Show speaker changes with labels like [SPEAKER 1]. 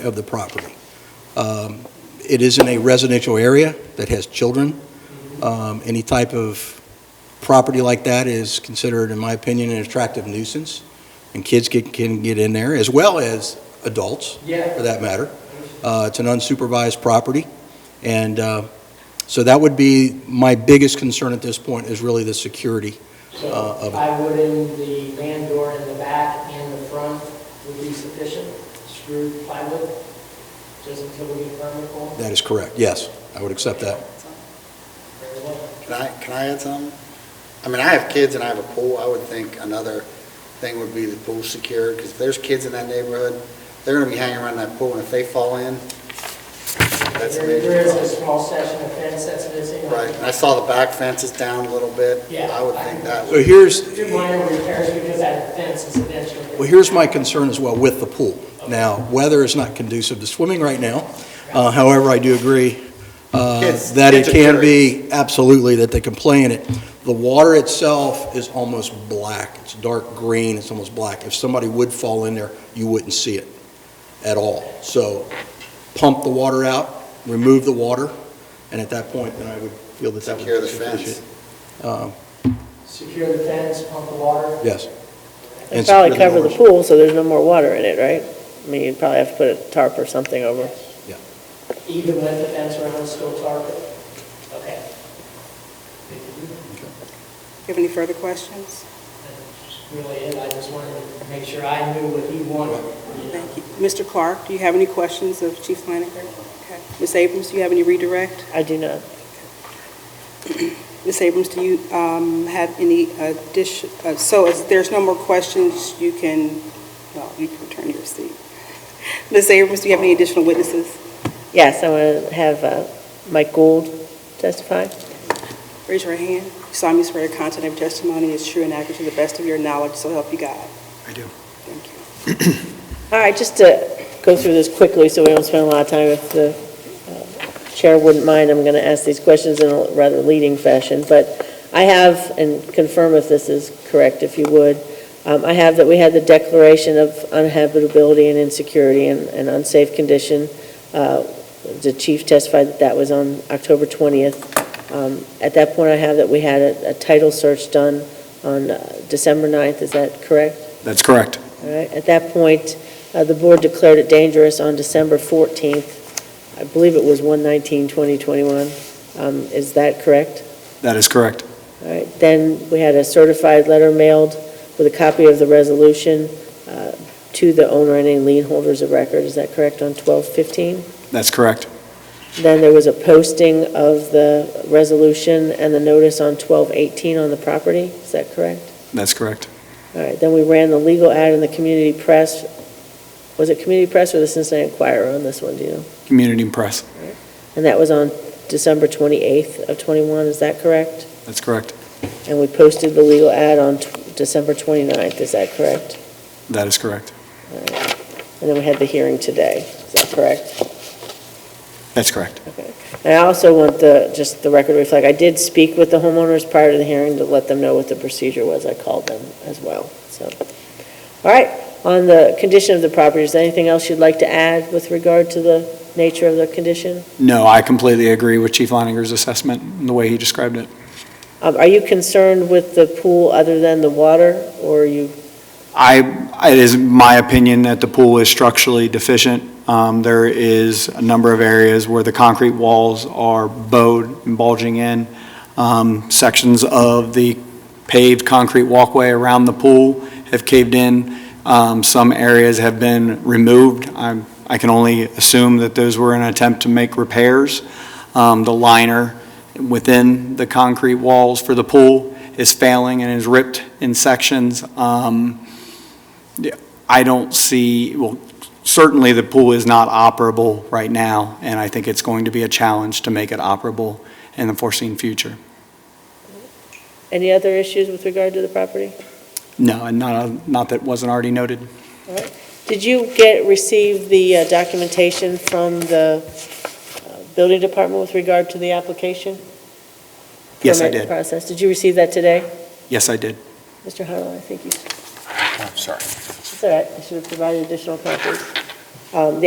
[SPEAKER 1] of the property. Um, It is in a residential area that has children. Um, Any type of property like that is considered, in my opinion, an attractive nuisance, and kids can- can get in there, as well as adults, for
[SPEAKER 2] Yeah,
[SPEAKER 1] that matter. Uh, It's an unsupervised property, and uh, so that would be my biggest concern at this point, is really the security. uh,
[SPEAKER 2] so
[SPEAKER 1] of-
[SPEAKER 2] I would in the man door in the back and the front would be sufficient, screwed plywood, just until we get a permit for it.
[SPEAKER 1] That is correct, yes, I would accept that.
[SPEAKER 2] Very well.
[SPEAKER 3] Can I, can I add something? I mean, I have kids and I have a pool, I would think another thing would be the pool secure, because if there's kids in that neighborhood, they're gonna be hanging around that pool, and if they fall in, that's a
[SPEAKER 2] There there
[SPEAKER 3] major
[SPEAKER 2] is a
[SPEAKER 3] problem.
[SPEAKER 2] small section of fence that's missing.
[SPEAKER 3] Right, and I saw the back fences down a little bit.
[SPEAKER 2] Yeah.
[SPEAKER 3] I would think that
[SPEAKER 1] So
[SPEAKER 3] would,
[SPEAKER 1] here's,
[SPEAKER 2] Do minor repairs because that fence is eventually.
[SPEAKER 1] Well, here's my concern as well with the pool. Now, weather is not conducive to swimming right now. Uh, However, I do agree uh,
[SPEAKER 3] Kids-
[SPEAKER 1] that it
[SPEAKER 3] kids are
[SPEAKER 1] can be, absolutely, that they can play in it. The water itself is almost black. It's dark green, it's almost black. If somebody would fall in there, you wouldn't see it at all. So pump the water out, remove the water, and at that point, then I would feel that that would
[SPEAKER 3] Secure
[SPEAKER 1] be
[SPEAKER 3] the fence.
[SPEAKER 1] sufficient. Uh,
[SPEAKER 2] Secure the fence, pump the water.
[SPEAKER 1] Yes.
[SPEAKER 4] It'd
[SPEAKER 1] And
[SPEAKER 4] probably
[SPEAKER 1] secure
[SPEAKER 4] cover the
[SPEAKER 1] doors.
[SPEAKER 4] pool, so there's no more water in it, right? I mean, you'd probably have to put a tarp or something over.
[SPEAKER 2] Even with the fence around, still target. Okay.
[SPEAKER 5] you have any further questions?
[SPEAKER 2] That's Really, it. I just wanted to make sure I knew what he wanted. you know.
[SPEAKER 5] Thank you. Mr. Clark, do you have any questions of Chief Flanagan? Okay. Ms. Abrams, do you have any redirect?
[SPEAKER 4] I do not.
[SPEAKER 5] Ms. Abrams, do you um, have any addition, uh, so if there's no more questions, you can, well, you can return to your seat. Ms. Abrams, do you have any additional witnesses?
[SPEAKER 4] Yes, I want to have uh, Mike Gould testify.
[SPEAKER 5] Raise your hand. You solemnly swear your content of your testimony is true and accurate to the best of your knowledge, so help you God.
[SPEAKER 3] I do.
[SPEAKER 5] Thank you.
[SPEAKER 4] All right, just to go through this quickly so we don't spend a lot of time, if the uh, chair wouldn't mind, I'm going to ask these questions in a rather leading fashion, but I have, and confirm if this is correct, if you would, um, I have that we had the declaration of unhabitability and insecurity and and unsafe condition. Uh, The chief testified that that was on October 20th. Um, At that point, I have that we had a a title search done on uh, December 9th, is that correct?
[SPEAKER 6] That's correct.
[SPEAKER 4] All right, at that point, uh, the board declared it dangerous on December 14th. I believe it was 119, 2021 Um, Is that correct?
[SPEAKER 6] That is correct.
[SPEAKER 4] All right, then we had a certified letter mailed with a copy of the resolution uh, to the owner and any lien holders of record. Is that correct, on 12/15?
[SPEAKER 6] That's correct.
[SPEAKER 4] Then there was a posting of the resolution and the notice on 12/18 on the property. Is that correct?
[SPEAKER 6] That's correct.
[SPEAKER 4] All right, then we ran the legal ad in the community press. Was it community press or the Cincinnati Enquirer on this one, do you know?
[SPEAKER 6] Community Press.
[SPEAKER 4] And that was on December 28th of '21, is that correct?
[SPEAKER 6] That's correct.
[SPEAKER 4] And we posted the legal ad on tw- December 29th, is that correct?
[SPEAKER 6] That is correct.
[SPEAKER 4] And then we had the hearing today, is that correct?
[SPEAKER 6] That's correct.
[SPEAKER 4] And I also want the, just the record to reflect, I did speak with the homeowners prior to the hearing to let them know what the procedure was. I called them as well, so. All right, on the condition of the property, is there anything else you'd like to add with regard to the nature of the condition?
[SPEAKER 6] No, I completely agree with Chief Leininger's assessment and the way he described it.
[SPEAKER 4] Um, Are you concerned with the pool other than the water, or are you,
[SPEAKER 6] I, it is my opinion that the pool is structurally deficient. Um, There is a number of areas where the concrete walls are bowed and bulging in. Um, Sections of the paved concrete walkway around the pool have caved in. Um, Some areas have been removed. I'm- I can only assume that those were in an attempt to make repairs. Um, The liner within the concrete walls for the pool is failing and is ripped in sections. Um, I don't see, well, certainly the pool is not operable right now, and I think it's going to be a challenge to make it operable in the foreseen future.
[SPEAKER 4] any other issues with regard to the property?
[SPEAKER 6] No, and not, not that wasn't already noted.
[SPEAKER 4] Did you get, receive the uh, documentation from the uh, building department with regard to the application?
[SPEAKER 6] Yes, I
[SPEAKER 4] Permit
[SPEAKER 6] did.
[SPEAKER 4] Process, did you receive that today?
[SPEAKER 6] Yes, I did.
[SPEAKER 4] Mr. Huddle, I think you,
[SPEAKER 3] I'm sorry.
[SPEAKER 4] it's all right, I should have provided additional copies. Um, The